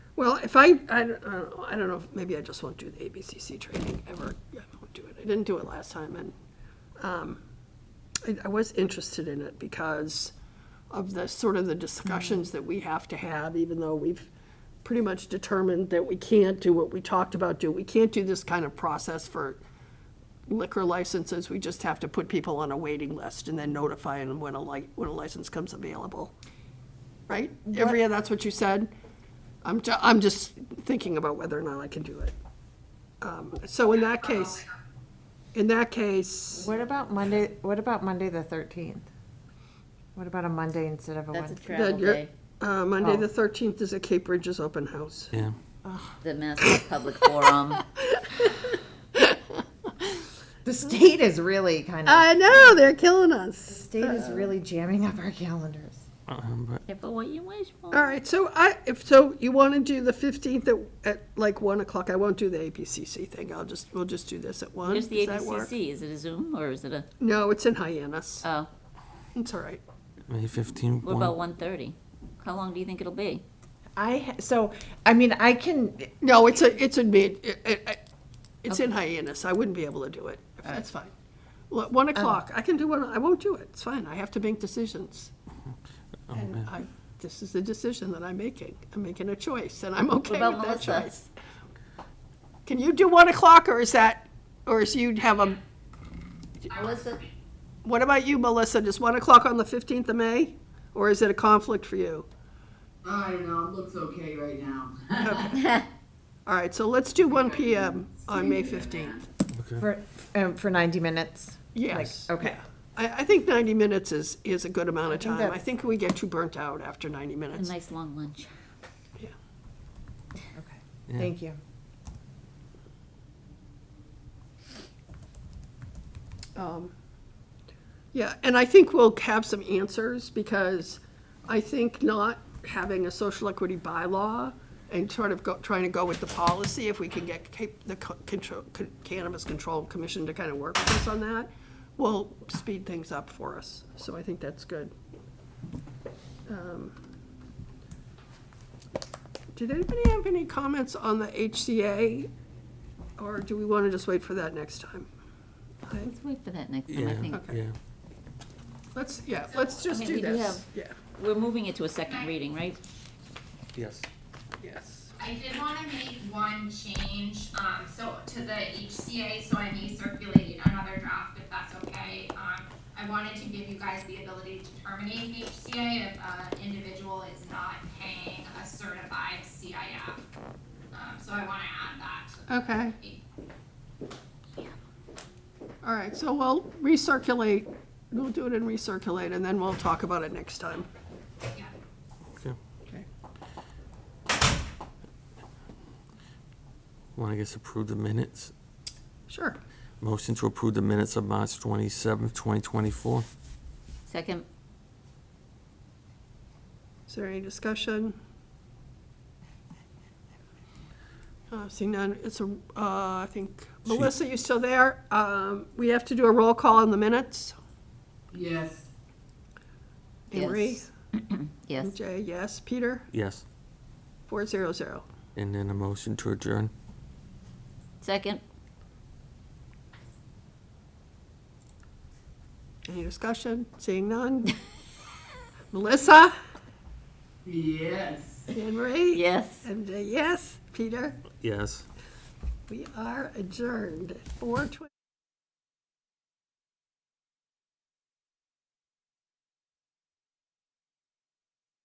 Well, if I, I don't, I don't know, I don't know, if- maybe I just won't do the ABCC training ever. I won't do it. I didn't do it last time, and um, I I was interested in it because of the, sort of the discussions that we have to have, even though we've pretty much determined that we can't do what we talked about do. We can't do this kind of process for liquor licenses. We just have to put people on a waiting list and then notify them when a li, when a license comes available. Right? Every, that's what you said? I'm, ju- I'm just thinking about whether or not I can do it. Um, So in that case, in that case, What about Monday, what about Monday the thirteenth? What about a Monday instead of a That's a Wednesday? travel you're- day, uh, Monday, the 13th is a Cape Bridges open house. Yeah. the Massapequa Public Forum. The state is really kind of, I know, Oh, they're killing us. state is really jamming up our calendars. Um, but Careful what you wish for. All right, so I, if, so you want to do the 15th at, at like 1 o'clock? I won't do the APCC thing, I'll just, we'll just do this at 1. Here's the Does that work? ABCC, is it a Zoom or is it a, No, it's in Hyannis. oh, It's all right. May 15th. what about 1:30? How long do you think it'll be? I, ha- so, I mean, I can, No, it's a, it's a mid, it- it- it- it's in Hyannis, I wouldn't be able to do it, if that's fine. Well, at 1 Uh-huh. o'clock, I can do one, I won't do it, it's fine, I have to make decisions. Oh, And I, this is the decision that I'm making, I'm making a choice, and I'm okay about with that Melissa? choice. Can you do 1 o'clock, or is that, or is you have a, Melissa, what about you, Melissa, does 1 o'clock on the 15th of May? Or is it a conflict for you? I don't know, it looks okay right now. All right, so let's do 1 PM on May 15th. for, um, for ninety minutes? Yes. Like, okay. I, I think 90 minutes is, is a good amount of think time. I that's- think we get too burnt out after 90 a minutes. nice long lunch. Okay, thank you. Um, Yeah, and I think we'll have some answers because I think not having a social equity bylaw and sort of go, trying to go with the policy, if we can get ca- the co- control, con- Cannabis Control Commission to kind of work with us on that, will speed things up for us. So I think that's good. Um, Did anybody have any comments on the HCA? Or do we want to just wait for that next time? I- Let's wait for that next time, I Yeah, think. Okay. yeah. Let's, yeah, let's just mean, do we do this. have- Yeah, We're moving it to a second reading, right? Yes. yes. I did want to make one change, um, so to the HCA, so I may circulate another draft if that's okay. Um, I wanted to give you guys the ability to terminate the HCA if an individual is not paying a certified CIF. Um, so I want to add that to Okay. All right, so we'll recirculate, we'll do it and recirculate, and then we'll talk about it next time. yeah. Okay. Okay. Want to guess approve the minutes? Sure. Motion to approve the minutes of March 27th, 2024. Second, Is there any discussion? Uh, Seeing none, it's a, uh, I think, She- Melissa, you still there? Um, We have to do a roll call on the minutes. Yes, Emery? Yes. yes. Jay, yes. Peter? Yes. Four zero zero. And then a motion to adjourn. Second, Any discussion? Seeing none? Melissa? yes. Anne Marie? yes. MJ, uh, yes. Peter, Yes. we are adjourned at 4:20.